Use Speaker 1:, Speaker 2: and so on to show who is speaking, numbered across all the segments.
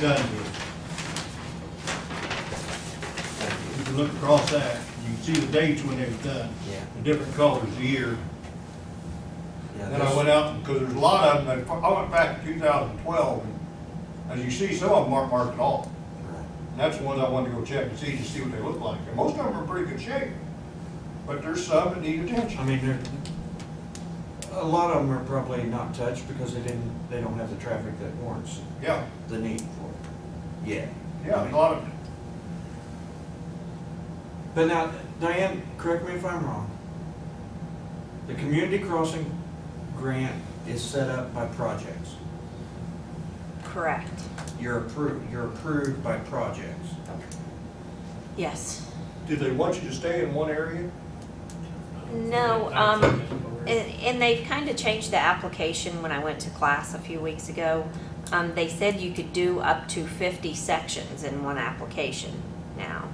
Speaker 1: done here. You can look across that, you can see the dates when they were done.
Speaker 2: Yeah.
Speaker 1: The different colors of year.
Speaker 2: Yeah,
Speaker 1: Then I
Speaker 2: this-
Speaker 1: went out, because there's a lot of them, that- I went back to two thousand twelve, as you see, some of them aren't marked at all.
Speaker 2: right.
Speaker 1: And that's the ones I wanted to go check and see, to see what they look like. And most of them are in pretty good shape, but there's some that need
Speaker 3: I
Speaker 1: attention.
Speaker 3: mean, there, a lot of them are probably not touched because they didn't, they don't have the traffic that warrants
Speaker 1: Yeah,
Speaker 2: The need for it. Yeah.
Speaker 1: yeah, a lot of,
Speaker 3: But now, Diane, correct me if I'm wrong. The community crossing grant is set up by projects.
Speaker 4: Correct,
Speaker 3: You're approved, you're approved by projects.
Speaker 4: yes.
Speaker 1: did they want you to stay in one area?
Speaker 4: No, um, and, and they've kind of changed the application when I went to class a few weeks ago. Um, they said you could do up to fifty sections in one application now.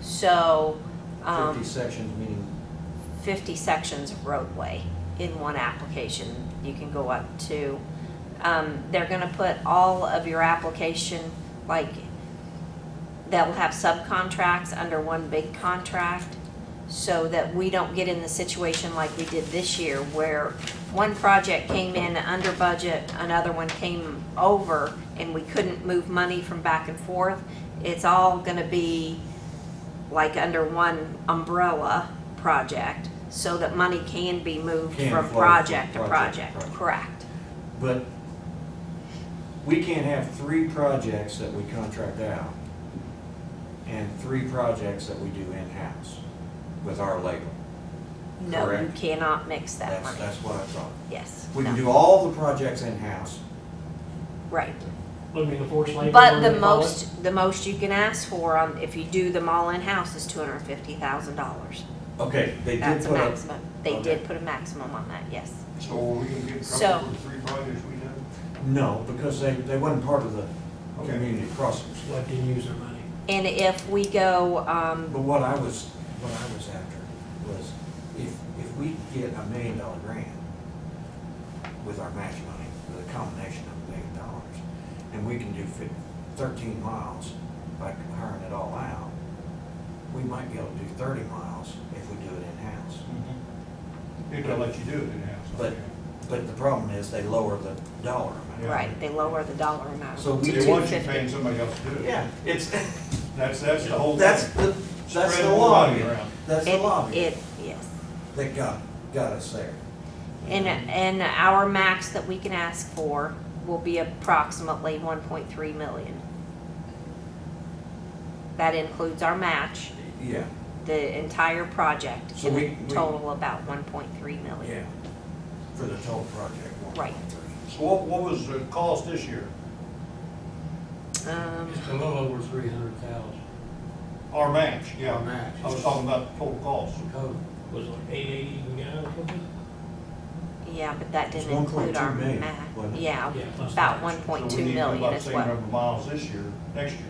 Speaker 4: So, um,
Speaker 3: Fifty sections meaning,
Speaker 4: fifty sections of roadway in one application, you can go up to. Um, they're gonna put all of your application, like, that will have subcontracts under one big contract, so that we don't get in the situation like we did this year, where one project came in under budget, another one came over, and we couldn't move money from back and forth. It's all gonna be like under one umbrella project, so that money can be moved
Speaker 3: Can
Speaker 4: from
Speaker 3: flow from
Speaker 4: project to
Speaker 3: project
Speaker 4: project,
Speaker 3: to project.
Speaker 4: correct?
Speaker 3: but we can't have three projects that we contract out and three projects that we do in-house with our labor.
Speaker 4: No, you
Speaker 3: Correct.
Speaker 4: cannot mix that
Speaker 3: That's,
Speaker 4: money,
Speaker 3: that's what I thought.
Speaker 4: yes.
Speaker 3: We can
Speaker 4: no,
Speaker 3: do all the projects in-house,
Speaker 4: Right,
Speaker 5: Would be the forced labor.
Speaker 4: but
Speaker 5: whatever
Speaker 4: the
Speaker 5: they call it.
Speaker 4: most, the most you can ask for on, if you do them all in-house is two hundred and fifty thousand dollars.
Speaker 3: Okay, they did
Speaker 4: That's a
Speaker 3: put up,
Speaker 4: maximum, they
Speaker 3: okay.
Speaker 4: did put a maximum on that, yes.
Speaker 1: So are we gonna get in
Speaker 4: So-
Speaker 1: trouble with the three projects we done?
Speaker 3: no, because they, they wasn't part of the
Speaker 1: Okay.
Speaker 3: community crossings.
Speaker 5: Let them use their money.
Speaker 4: And if we go, um,
Speaker 3: But what I was, what I was after was if, if we get a million dollar grant with our match money, with a combination of a million dollars, and we can do fif- thirteen miles by hiring it all out, we might be able to do thirty miles if we do it in-house.
Speaker 1: If they let you do it in-house.
Speaker 3: But, but the problem is they lower the dollar amount.
Speaker 1: Yeah.
Speaker 4: right, they lower the dollar amount to
Speaker 3: So
Speaker 4: two
Speaker 3: we-
Speaker 4: fifty.
Speaker 1: They want you paying somebody else to do it.
Speaker 3: Yeah, it's,
Speaker 1: That's, that's the whole.
Speaker 3: That's
Speaker 1: thing.
Speaker 3: the, that's
Speaker 1: Spread
Speaker 3: the
Speaker 1: the lobby
Speaker 3: lobby,
Speaker 1: around.
Speaker 3: that's the
Speaker 4: It-
Speaker 3: lobby
Speaker 4: It, yes.
Speaker 3: that got, got us there.
Speaker 4: And, and our max that we can ask for will be approximately one point three million. That includes our match,
Speaker 3: Yeah,
Speaker 4: the entire project,
Speaker 3: So
Speaker 4: in
Speaker 3: we-
Speaker 4: a
Speaker 3: we-
Speaker 4: total about one point three million.
Speaker 3: yeah, for the total project, one
Speaker 4: Right.
Speaker 3: point three.
Speaker 1: So what, what was the cost this year?
Speaker 4: Um,
Speaker 5: It's a little over three hundred thousand.
Speaker 1: Our match, yeah.
Speaker 5: Our match.
Speaker 1: I was talking about the total cost.
Speaker 5: The code was like eight eighty we got or something?
Speaker 4: yeah, but that
Speaker 3: It's
Speaker 4: didn't include
Speaker 3: 1.2
Speaker 4: our
Speaker 3: million,
Speaker 4: match.
Speaker 3: wasn't it?
Speaker 4: Yeah,
Speaker 5: Yeah, plus
Speaker 4: about
Speaker 5: match.
Speaker 4: one point two
Speaker 1: So we need to do
Speaker 4: million
Speaker 1: about the
Speaker 4: is
Speaker 1: same
Speaker 4: what,
Speaker 1: number of miles this year, next year.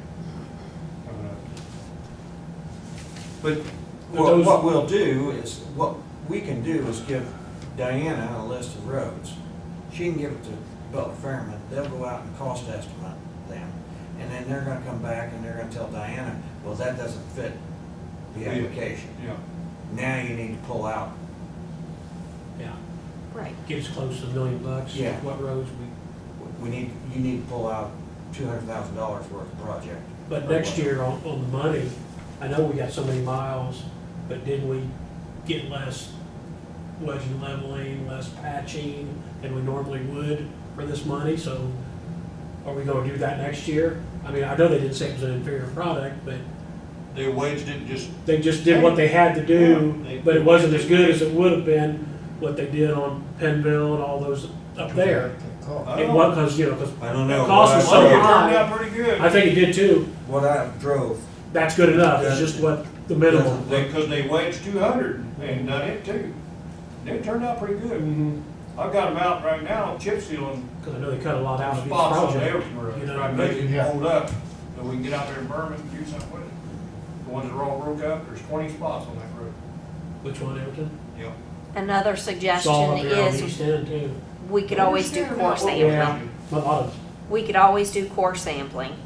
Speaker 1: Uh, coming up.
Speaker 3: But
Speaker 5: But
Speaker 3: what,
Speaker 5: those-
Speaker 3: what we'll do is, what we can do is give Diana a list of roads. She can give it to Butler Fairman, they'll go out and cost estimate them, and then they're gonna come back and they're gonna tell Diana, well, that doesn't fit the
Speaker 1: Yeah.
Speaker 3: application.
Speaker 1: Yeah.
Speaker 3: Now you need to pull out
Speaker 5: Yeah,
Speaker 4: right,
Speaker 5: gets close to a million bucks.
Speaker 3: Yeah.
Speaker 5: What roads we,
Speaker 3: We need, you need to pull out two hundred thousand dollars worth of project.
Speaker 5: but next year on, on the money, I know we got so many miles, but didn't we get less wedge and leveling, less patching than we normally would for this money? So are we gonna do that next year? I mean, I know they didn't say it was an inferior product, but
Speaker 1: They waged it just,
Speaker 5: they just did what they had to
Speaker 1: Yeah, they-
Speaker 5: do, but it wasn't as good as it would have been what they did on Pennville and all those up there.
Speaker 3: Oh.
Speaker 1: I
Speaker 5: It
Speaker 1: don't
Speaker 5: was,
Speaker 1: know.
Speaker 5: cause, you know, 'cause
Speaker 3: I don't know.
Speaker 5: Cost was
Speaker 3: What I
Speaker 5: so
Speaker 1: It
Speaker 3: drove-
Speaker 5: high.
Speaker 1: turned out pretty
Speaker 5: I
Speaker 1: good.
Speaker 5: think it did too,
Speaker 3: What I drove,
Speaker 5: that's good enough, it's just what, the minimum.
Speaker 1: They, cause they waged two hundred and done it too. It turned out pretty good.
Speaker 5: Cause
Speaker 1: I've got them out right now, chip sealing
Speaker 5: I know they cut a lot out of each
Speaker 1: spots on
Speaker 5: project.
Speaker 1: everywhere,
Speaker 5: you know,
Speaker 1: right, make it hold up, so we can get out there and burn it and do something with it. The ones that are all broke up, there's twenty spots on that road.
Speaker 5: Which one, Everton?
Speaker 1: Yep.
Speaker 4: another
Speaker 5: Saw
Speaker 4: suggestion
Speaker 5: up there on
Speaker 4: is,
Speaker 5: East End too.
Speaker 4: we could always do core sampling.
Speaker 5: A lot of
Speaker 4: We could always do core sampling,